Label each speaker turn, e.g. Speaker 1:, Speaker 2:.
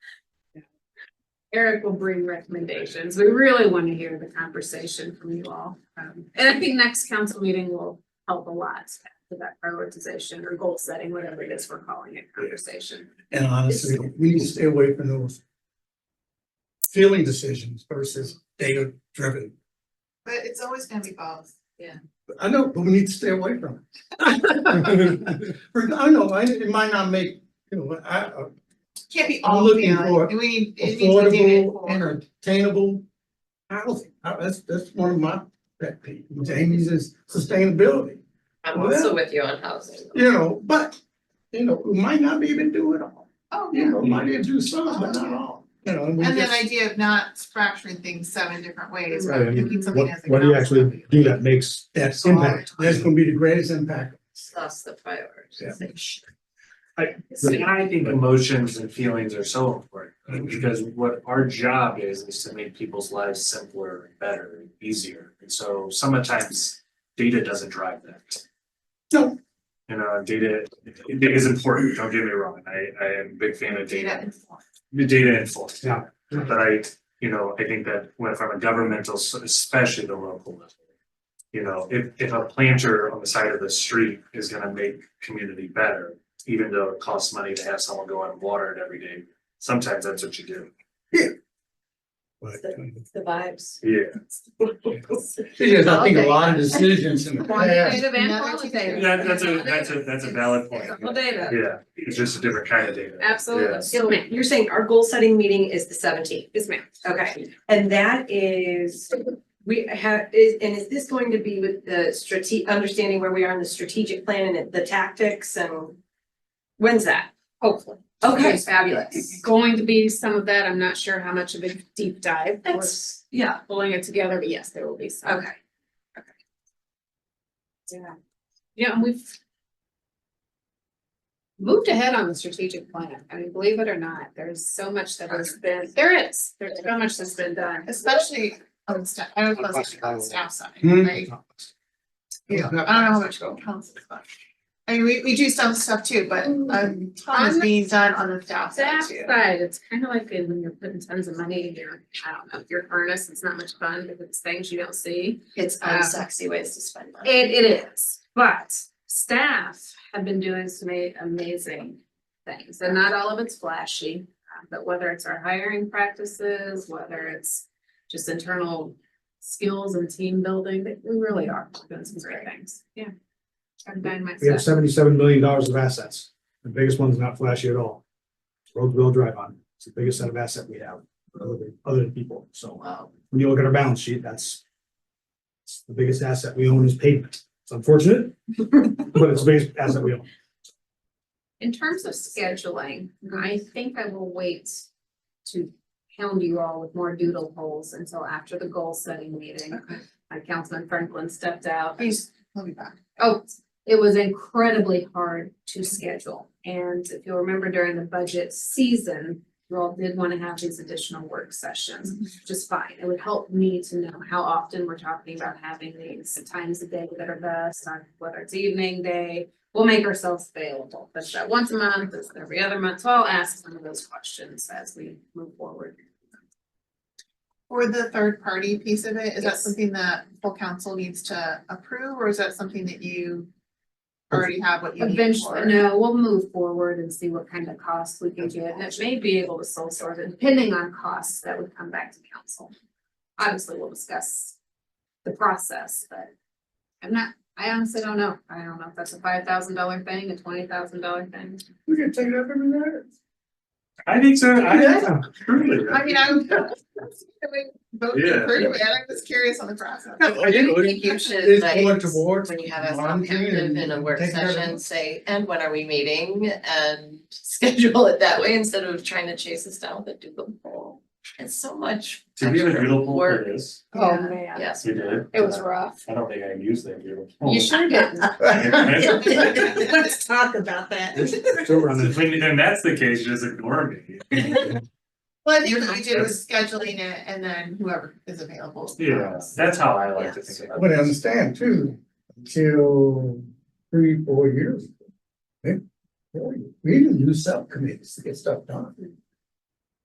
Speaker 1: Eric will bring recommendations. We really want to hear the conversation from you all. Um, and I think next council meeting will help a lot with that prioritization or goal setting, whatever it is we're calling it, conversation.
Speaker 2: And honestly, we need to stay away from those feeling decisions versus data driven.
Speaker 3: But it's always gonna be both, yeah.
Speaker 2: I know, but we need to stay away from it. For- I know, I- it might not make, you know, I, uh, I-
Speaker 3: Can't be
Speaker 2: I'm
Speaker 3: all
Speaker 2: looking
Speaker 3: feeling,
Speaker 2: for
Speaker 3: and we need, it needs to be doing it
Speaker 2: affordable
Speaker 3: for.
Speaker 2: and attainable housing. Uh, That's, that's one of my pet peeves. Jamie's is sustainability,
Speaker 4: I'm also with you on housing.
Speaker 2: you know, but, you know, we might not even do it all.
Speaker 3: Oh,
Speaker 2: You
Speaker 3: yeah,
Speaker 2: know, might even do some, but not all, you know, and we
Speaker 3: and that
Speaker 2: just,
Speaker 3: idea of not fracturing things seven different ways,
Speaker 5: Right, I
Speaker 3: but
Speaker 5: mean,
Speaker 3: looking something
Speaker 5: What,
Speaker 3: as a.
Speaker 5: what do you
Speaker 3: concept.
Speaker 5: actually do that makes,
Speaker 2: that's
Speaker 3: Small.
Speaker 2: impact, that's gonna be the greatest impact.
Speaker 4: That's the prioritization.
Speaker 6: See, I think emotions and feelings are so important, right? because what our job is, is to make people's lives simpler, and better, and easier. And so sometimes data doesn't drive that.
Speaker 2: No.
Speaker 6: You know, data, it is important, don't get me wrong, I, I am a big fan of
Speaker 3: Data
Speaker 6: data,
Speaker 3: informed.
Speaker 6: the data enforced.
Speaker 2: Yeah.
Speaker 6: But I, you know, I think that when from a governmental, s- especially the local level. You know, if if a planter on the side of the street is gonna make community better, even though it costs money to have someone go out and water it every day. Sometimes that's what you do.
Speaker 2: But,
Speaker 4: It's the vibes.
Speaker 6: Yeah.
Speaker 2: Because I think a lot of decisions in the past,
Speaker 1: Quantitative and
Speaker 3: Another
Speaker 1: qualitative.
Speaker 6: That that's a, that's a, that's a valid point.
Speaker 1: Well, data,
Speaker 6: Yeah, it's just a different kind of data.
Speaker 1: absolutely.
Speaker 6: Yes.
Speaker 4: So ma'am, you're saying our goal setting meeting is the seventeenth,
Speaker 1: Yes, ma'am.
Speaker 4: okay, and that is, we have, is, and is this going to be with the strate- understanding where we are in the strategic plan and the tactics and? When's that?
Speaker 1: Hopefully.
Speaker 4: Okay,
Speaker 1: It's
Speaker 4: fabulous.
Speaker 1: going to be some of that. I'm not sure how much of a deep dive. We're
Speaker 4: That's, yeah,
Speaker 1: Pulling it together, but yes, there will be some.
Speaker 4: okay. Yeah.
Speaker 1: Yeah, and we've moved ahead on the strategic plan. I mean, believe it or not, there's so much that has been, there is, there's so much that's been done.
Speaker 3: Especially on staff, I was supposed to on the staff side,
Speaker 2: Hmm.
Speaker 3: right? Yeah, I don't know how much go council, but. I mean, we we do some stuff too, but a ton is being done on the staff side
Speaker 1: That
Speaker 3: too.
Speaker 1: side, it's kind of like when you're putting tons of money in your, I don't know, your furnace, it's not much fun because it's things you don't see.
Speaker 4: It's uh,
Speaker 3: Um,
Speaker 1: unsexy
Speaker 4: ways to spend money.
Speaker 1: It, it is, but staff have been doing some a- amazing things, and not all of it's flashy. uh, But whether it's our hiring practices, whether it's just internal skills and team building, they we really are doing some great things, yeah. I've been
Speaker 5: we have
Speaker 1: myself,
Speaker 5: seventy-seven million dollars of assets. The biggest one's not flashy at all. It's Roadville Drive on, it's the biggest set of asset we have, other than, other than people, so
Speaker 3: Wow.
Speaker 5: when you look at our balance sheet, that's. it's The biggest asset we own is pavement, it's unfortunate, but it's the biggest asset we own.
Speaker 1: in terms of scheduling, I think I will wait to hound you all with more doodle holes until after the goal setting meeting. My Councilman Franklin stepped out.
Speaker 3: Please, let me back.
Speaker 1: Oh, it was incredibly hard to schedule. And if you'll remember during the budget season, you all did want to have these additional work sessions, which is fine. It would help me to know how often we're talking about having these times a day that are best, on whether it's evening, day. We'll make ourselves available. But that once a month, is it every other month. So I'll ask some of those questions as we move forward.
Speaker 3: For the third party piece of it, is that
Speaker 1: Yes.
Speaker 3: something that full council needs to approve, or is that something that you already have what you need for?
Speaker 1: Eventually, no, we'll move forward and see what kind of costs we can get, and it may be able to sole source, it, depending on costs that would come back to council. Obviously, we'll discuss the process, but I'm not, I honestly don't know, I don't know if that's a five thousand dollar thing, a twenty thousand dollar thing.
Speaker 2: we can take it up every minute.
Speaker 6: I think so, I,
Speaker 5: Yeah.
Speaker 6: truly.
Speaker 3: I mean, I would. Vote to
Speaker 6: Yeah.
Speaker 3: approve it, I'm just curious on the process.
Speaker 2: I didn't-
Speaker 7: I think you should,
Speaker 2: It's
Speaker 7: like,
Speaker 2: going towards
Speaker 7: when you have us all
Speaker 2: monitoring
Speaker 7: active
Speaker 2: and
Speaker 7: in a work
Speaker 2: taking care of
Speaker 7: session,
Speaker 2: it.
Speaker 7: say, and when are we meeting? And schedule it that way instead of trying to chase us down with a doodle poll. It's so much.
Speaker 6: To be in a
Speaker 7: extra
Speaker 6: doodle poll,
Speaker 7: work.
Speaker 6: it is,
Speaker 1: Oh,
Speaker 3: Yeah.
Speaker 1: man,
Speaker 7: Yes.
Speaker 6: you did.
Speaker 1: it was rough.
Speaker 6: I don't think I used that doodle. poll.
Speaker 1: You sure did.
Speaker 7: Let's talk about that.
Speaker 5: So we're on the-
Speaker 6: Then that's the case, just ignore me.
Speaker 3: Well, I think what we did was scheduling it and then whoever is available.
Speaker 6: Yeah, that's how I like to think about
Speaker 2: But I
Speaker 6: it.
Speaker 2: understand too, until three, four years. ago, eh, We didn't use subcommittees to get stuff done.